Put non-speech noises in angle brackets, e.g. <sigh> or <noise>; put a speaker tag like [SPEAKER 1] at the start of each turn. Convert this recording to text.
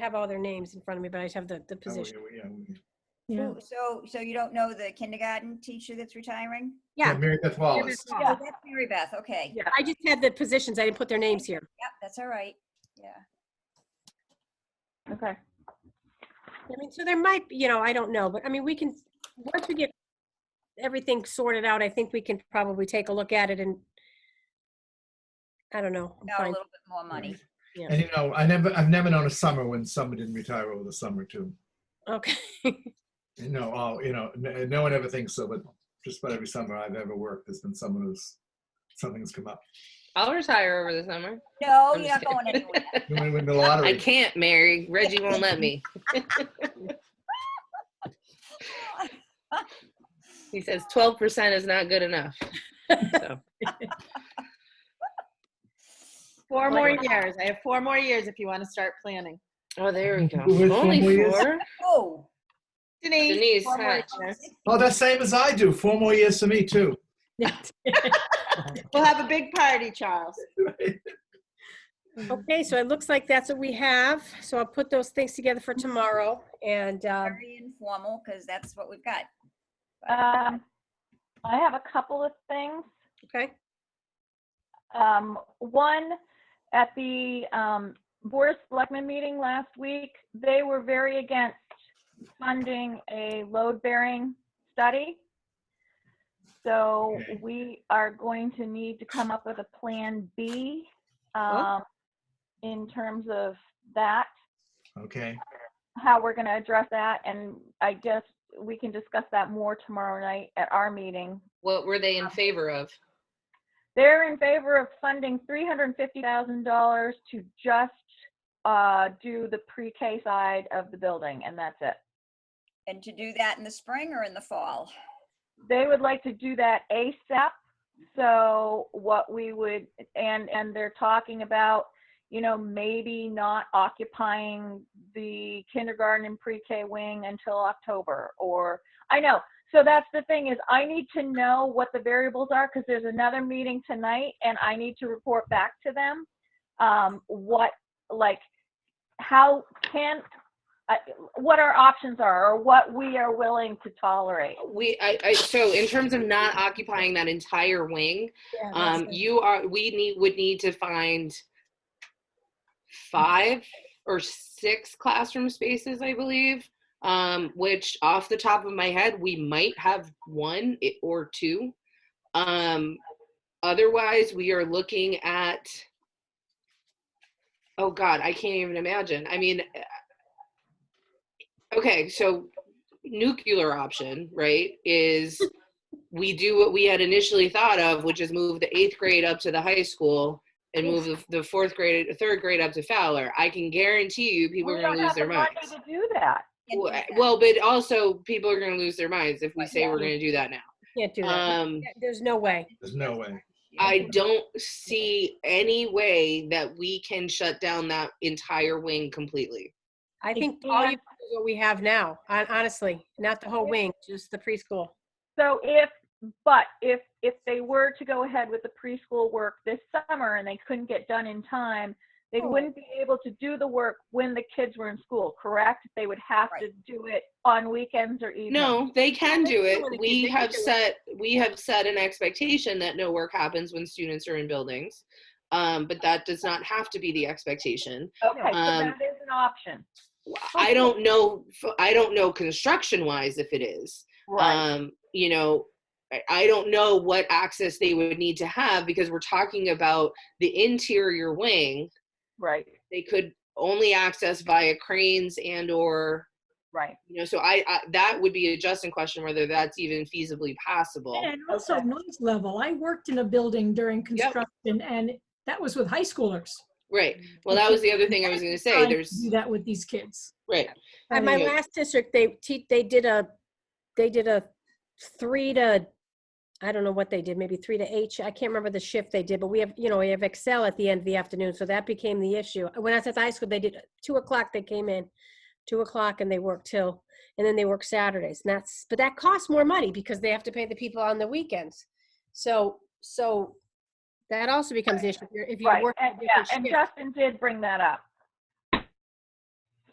[SPEAKER 1] have all their names in front of me, but I just have the, the
[SPEAKER 2] Oh,
[SPEAKER 1] position.
[SPEAKER 2] yeah, we- yeah, we-
[SPEAKER 3] Yeah.
[SPEAKER 4] Who- So, so you don't know the kindergarten teacher that's retiring?
[SPEAKER 2] Yeah,
[SPEAKER 1] Yeah.
[SPEAKER 2] Mary Beth Wallace.
[SPEAKER 1] Yeah.
[SPEAKER 4] Oh, that's Mary Beth, okay.
[SPEAKER 1] Yeah, I just had the positions. I didn't put their names here.
[SPEAKER 4] Yep, that's all right, yeah.
[SPEAKER 3] Okay.
[SPEAKER 1] I mean, so there might, be you know, I don't know, but I mean, we can, once we get everything sorted out, I think we can probably take a look at it and, I don't know.
[SPEAKER 4] Now a
[SPEAKER 1] find-
[SPEAKER 4] little bit more money.
[SPEAKER 1] Yeah.
[SPEAKER 2] And you know, I never, I've never known a summer when someone didn't retire over the summer too.
[SPEAKER 1] Okay.
[SPEAKER 2] You know, all, you know, no, no one ever thinks so, but just about every summer I've ever worked, there's been someone who's, something's come up.
[SPEAKER 5] I'll retire over the summer.
[SPEAKER 4] No,
[SPEAKER 5] I'm
[SPEAKER 4] you're not
[SPEAKER 5] just
[SPEAKER 4] going
[SPEAKER 5] kidding.
[SPEAKER 4] anywhere. <laughs>
[SPEAKER 2] You might win the
[SPEAKER 5] I
[SPEAKER 2] lottery.
[SPEAKER 5] can't marry. Reggie won't let me. He says 12% is not good enough. So,
[SPEAKER 3] Four more years. I have four more years if you want to start planning.
[SPEAKER 5] oh, there we go.
[SPEAKER 2] Who is
[SPEAKER 5] Only
[SPEAKER 2] Fomoyas?
[SPEAKER 5] four?
[SPEAKER 4] Oh,
[SPEAKER 3] Denise.
[SPEAKER 5] Denise,
[SPEAKER 3] four more
[SPEAKER 5] huh?
[SPEAKER 3] years.
[SPEAKER 2] Oh, that's same as I do. Four more years for me too.
[SPEAKER 3] We'll have a big party, Charles.
[SPEAKER 1] Okay, so it looks like that's what we have. So I'll put those things together for tomorrow and, um,
[SPEAKER 4] very informal, because that's what we've got.
[SPEAKER 6] Um, I have a couple of things.
[SPEAKER 1] okay?
[SPEAKER 6] Um, one, at the um, Board of Selectmen meeting last week, they were very against funding a load-bearing study. So
[SPEAKER 2] Okay.
[SPEAKER 6] we are going to need to come up with a Plan B um, in terms of that,
[SPEAKER 2] Okay.
[SPEAKER 6] how we're going to address that. And I guess we can discuss that more tomorrow night at our meeting,
[SPEAKER 5] What were they in favor of?
[SPEAKER 6] They're in favor of funding three hundred and fifty thousand dollars to just uh, do the pre-K side of the building, and that's it.
[SPEAKER 4] And to do that in the spring or in the fall?
[SPEAKER 6] They would like to do that ASAP. So what we would, and and they're talking about, you know, maybe not occupying the kindergarten and pre-K wing until October, or I know. So that's the thing is, I need to know what the variables are because there's another meeting tonight, and I need to report back to them. um, what like how can I what our options are or what we are willing to tolerate
[SPEAKER 5] We, I, I, so in terms of not occupying that entire wing,
[SPEAKER 1] Yeah, that's
[SPEAKER 5] um,
[SPEAKER 1] it.
[SPEAKER 5] you are, we need, would need to find five or six classroom spaces, I believe. Um, which off the top of my head, we might have one i- or two. Um, otherwise, we are looking at, oh God, I can't even imagine. I mean, uh, okay, so nuclear option, right,
[SPEAKER 4] <laughs>
[SPEAKER 5] is we do what we had initially thought of, which is move the eighth grade up to the high school and move the, the fourth grade, third grade up to Fowler. I can guarantee you people are
[SPEAKER 6] we
[SPEAKER 5] going
[SPEAKER 6] don't
[SPEAKER 5] to lose
[SPEAKER 6] have
[SPEAKER 5] their
[SPEAKER 6] the
[SPEAKER 5] minds.
[SPEAKER 6] money to do that
[SPEAKER 4] Can't do
[SPEAKER 5] Well,
[SPEAKER 4] that.
[SPEAKER 5] well, but also people are going to lose their minds if we
[SPEAKER 4] Right,
[SPEAKER 5] say
[SPEAKER 4] yeah.
[SPEAKER 5] we're going to do that now.
[SPEAKER 1] Can't do that.
[SPEAKER 5] Um,
[SPEAKER 1] Yeah, There's no way.
[SPEAKER 2] There's no way.
[SPEAKER 5] I don't see any way that we can shut down that entire wing completely.
[SPEAKER 1] I
[SPEAKER 6] Hey,
[SPEAKER 1] think all
[SPEAKER 6] Dan.
[SPEAKER 1] you, is what we have now, hon- honestly, not the whole wing, just the preschool.
[SPEAKER 6] so if but if if they were to go ahead with the preschool work this summer and they couldn't get done in time they
[SPEAKER 1] Oh.
[SPEAKER 6] wouldn't be able to do the work when the kids were in school correct they would have to do it on weekends or evenings
[SPEAKER 5] No, they can
[SPEAKER 1] They
[SPEAKER 5] do
[SPEAKER 1] do
[SPEAKER 5] it.
[SPEAKER 1] it if
[SPEAKER 5] We
[SPEAKER 1] they do
[SPEAKER 5] have
[SPEAKER 1] it.
[SPEAKER 5] set we have set an expectation that no work happens when students are in buildings. Um, but that does not have to be the expectation.
[SPEAKER 6] okay so
[SPEAKER 5] Um,
[SPEAKER 6] that is an option
[SPEAKER 5] I don't know. I don't know construction wise if it is.
[SPEAKER 6] right
[SPEAKER 5] um, you know, I- I don't know what access they would need to have because we're talking about the interior wing.
[SPEAKER 6] right
[SPEAKER 5] They could only access via cranes and or,
[SPEAKER 6] right
[SPEAKER 5] you know, so I, I that would be a Justin question whether that's even feasibly possible.
[SPEAKER 7] And also noise level. I worked in a building during construction and that was with high schoolers.
[SPEAKER 5] Right. Well, that was the other thing I was going to say.
[SPEAKER 7] Mm. Trying to
[SPEAKER 5] There's
[SPEAKER 7] Do that with these kids.
[SPEAKER 5] right.
[SPEAKER 1] At my
[SPEAKER 5] Yeah.
[SPEAKER 1] last district, they te- they did a, they did a three to, I don't know what they did, maybe three to eight. sh- I can't remember the shift they did, but we have, you know, we have Excel at the end of the afternoon, so that became the issue. When I was at the high school, they did two o'clock. They came in, two o'clock, and they worked till, and then they work Saturdays. And that's, but that costs more money because they have to pay the people on the weekends. So so, that also becomes an issue if you're, if you're
[SPEAKER 6] Right,
[SPEAKER 1] working.
[SPEAKER 6] and,
[SPEAKER 1] a
[SPEAKER 6] yeah,
[SPEAKER 1] different
[SPEAKER 6] and
[SPEAKER 1] shift.
[SPEAKER 6] Justin did bring that up.